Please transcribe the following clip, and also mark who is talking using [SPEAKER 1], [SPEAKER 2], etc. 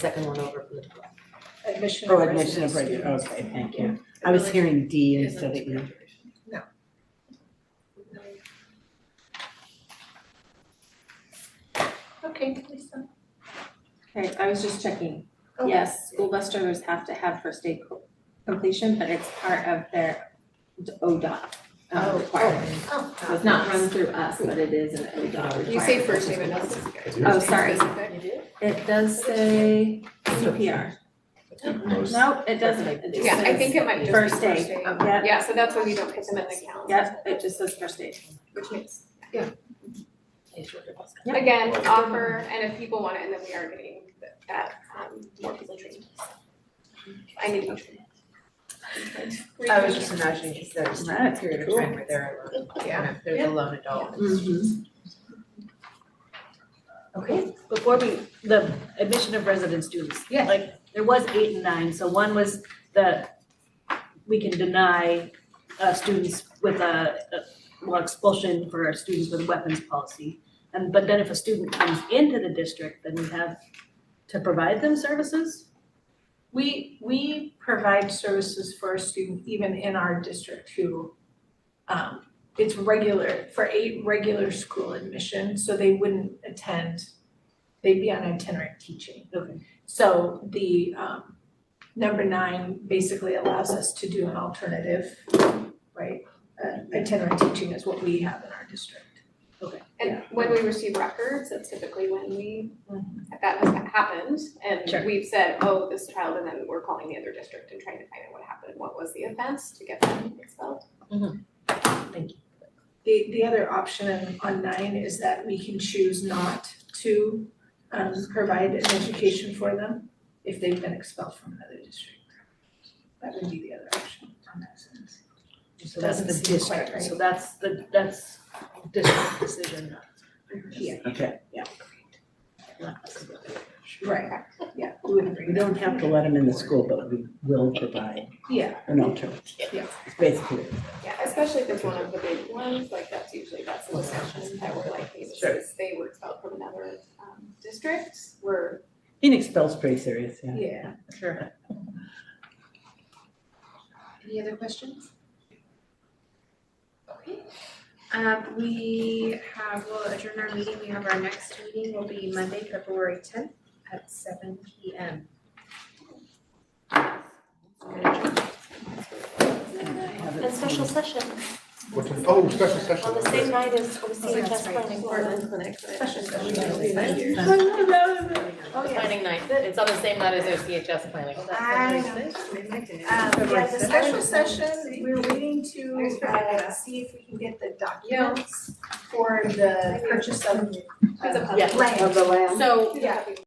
[SPEAKER 1] second one over from the top.
[SPEAKER 2] Admission
[SPEAKER 3] Oh,
[SPEAKER 2] of
[SPEAKER 3] admission of
[SPEAKER 2] residents.
[SPEAKER 3] regular, okay, thank you. I was hearing D instead of E.
[SPEAKER 2] Okay, Lisa.
[SPEAKER 4] Okay, I was just checking.
[SPEAKER 2] Oh.
[SPEAKER 4] Yes, school bus drivers have to have first aid co- completion, but it's part of their d- ODOT
[SPEAKER 1] oh.
[SPEAKER 4] uh, requirement.
[SPEAKER 2] Oh,
[SPEAKER 4] So it's not run through us, but it is an ODOT requirement.
[SPEAKER 5] You say first name and last name.
[SPEAKER 4] Oh, sorry.
[SPEAKER 1] You do?
[SPEAKER 4] It does say CPR. No, it doesn't. It just
[SPEAKER 5] Yeah, I think
[SPEAKER 4] says,
[SPEAKER 5] it might just be
[SPEAKER 4] First
[SPEAKER 5] first
[SPEAKER 4] aid.
[SPEAKER 5] aid.
[SPEAKER 4] Yep.
[SPEAKER 5] Yeah, so that's why we don't put them in the calendar,
[SPEAKER 4] yep, it just says first aid.
[SPEAKER 5] which makes,
[SPEAKER 1] It's your boss.
[SPEAKER 4] Yep.
[SPEAKER 5] again, offer, and if people want it, and then we are getting that, um, more people trained. I need to. be trained.
[SPEAKER 2] I was just imagining, because there's a
[SPEAKER 4] That's
[SPEAKER 2] period of
[SPEAKER 4] cool.
[SPEAKER 2] time where they're alone, yeah, they're the lone adult. Okay.
[SPEAKER 6] before we, the admission of resident students.
[SPEAKER 2] Yeah.
[SPEAKER 6] Like, there was eight and nine, so one was the, we can deny uh students with a, a- well, expulsion for our students with weapons policy. And but then if a student comes into the district, then we have to provide them services?
[SPEAKER 7] We, we provide services for a student even in our district who, um, it's regular, for eight regular school admission, so they wouldn't attend, they'd be on itinerant teaching.
[SPEAKER 6] Okay.
[SPEAKER 7] So the, um, number nine basically allows us to do an alternative, right? Uh, itinerant teaching is what we have in our district.
[SPEAKER 5] And when we receive records, that's typically when we, that has happened,
[SPEAKER 6] Sure.
[SPEAKER 5] and we've said, oh, this child, and then we're calling the other district and trying to find out what happened, what was the offense to get them expelled.
[SPEAKER 7] The, the other option on- on nine is that we can choose not to um, provide an education for them if they've been expelled from another district. That would be the other option on that sentence.
[SPEAKER 6] So that's the
[SPEAKER 7] Doesn't seem quite
[SPEAKER 6] district,
[SPEAKER 7] right.
[SPEAKER 6] so that's the, that's district decision, not.
[SPEAKER 7] Yeah.
[SPEAKER 3] Okay.
[SPEAKER 6] not us.
[SPEAKER 7] Right, yeah, we wouldn't
[SPEAKER 3] We
[SPEAKER 7] bring that.
[SPEAKER 3] don't have to let them in the school, but we will provide
[SPEAKER 7] Yeah,
[SPEAKER 3] an alternative.
[SPEAKER 7] Yeah.
[SPEAKER 3] It's basically,
[SPEAKER 5] Yeah, especially if it's one of the big ones, like that's usually, that's the discussion that we're like, hey, this
[SPEAKER 3] Sure.
[SPEAKER 5] is, they were expelled from another um district, we're
[SPEAKER 3] being expelled's pretty serious, yeah.
[SPEAKER 7] yeah.
[SPEAKER 2] Sure. Any other questions?
[SPEAKER 8] Okay, um, we have, we'll adjourn our meeting, we have our next meeting will be Monday, February tenth at seven P M.
[SPEAKER 3] Have
[SPEAKER 9] And
[SPEAKER 3] it-
[SPEAKER 9] special session
[SPEAKER 10] What time- Oh, special
[SPEAKER 9] on
[SPEAKER 10] session.
[SPEAKER 9] the same night as OC Test Planning Board.
[SPEAKER 5] Portland Clinic, so it's
[SPEAKER 2] Special
[SPEAKER 5] just
[SPEAKER 2] session.
[SPEAKER 5] really nice.
[SPEAKER 2] Oh, yeah.
[SPEAKER 1] Planning night, it's on the same night as OCHS planning.
[SPEAKER 7] Um, yeah, the
[SPEAKER 2] sixth.
[SPEAKER 7] special session, we're waiting to uh, see if we can get the documents for the purchase of
[SPEAKER 5] It's a
[SPEAKER 7] uh,
[SPEAKER 5] public-
[SPEAKER 7] land.
[SPEAKER 4] the land.
[SPEAKER 1] So
[SPEAKER 7] Yeah,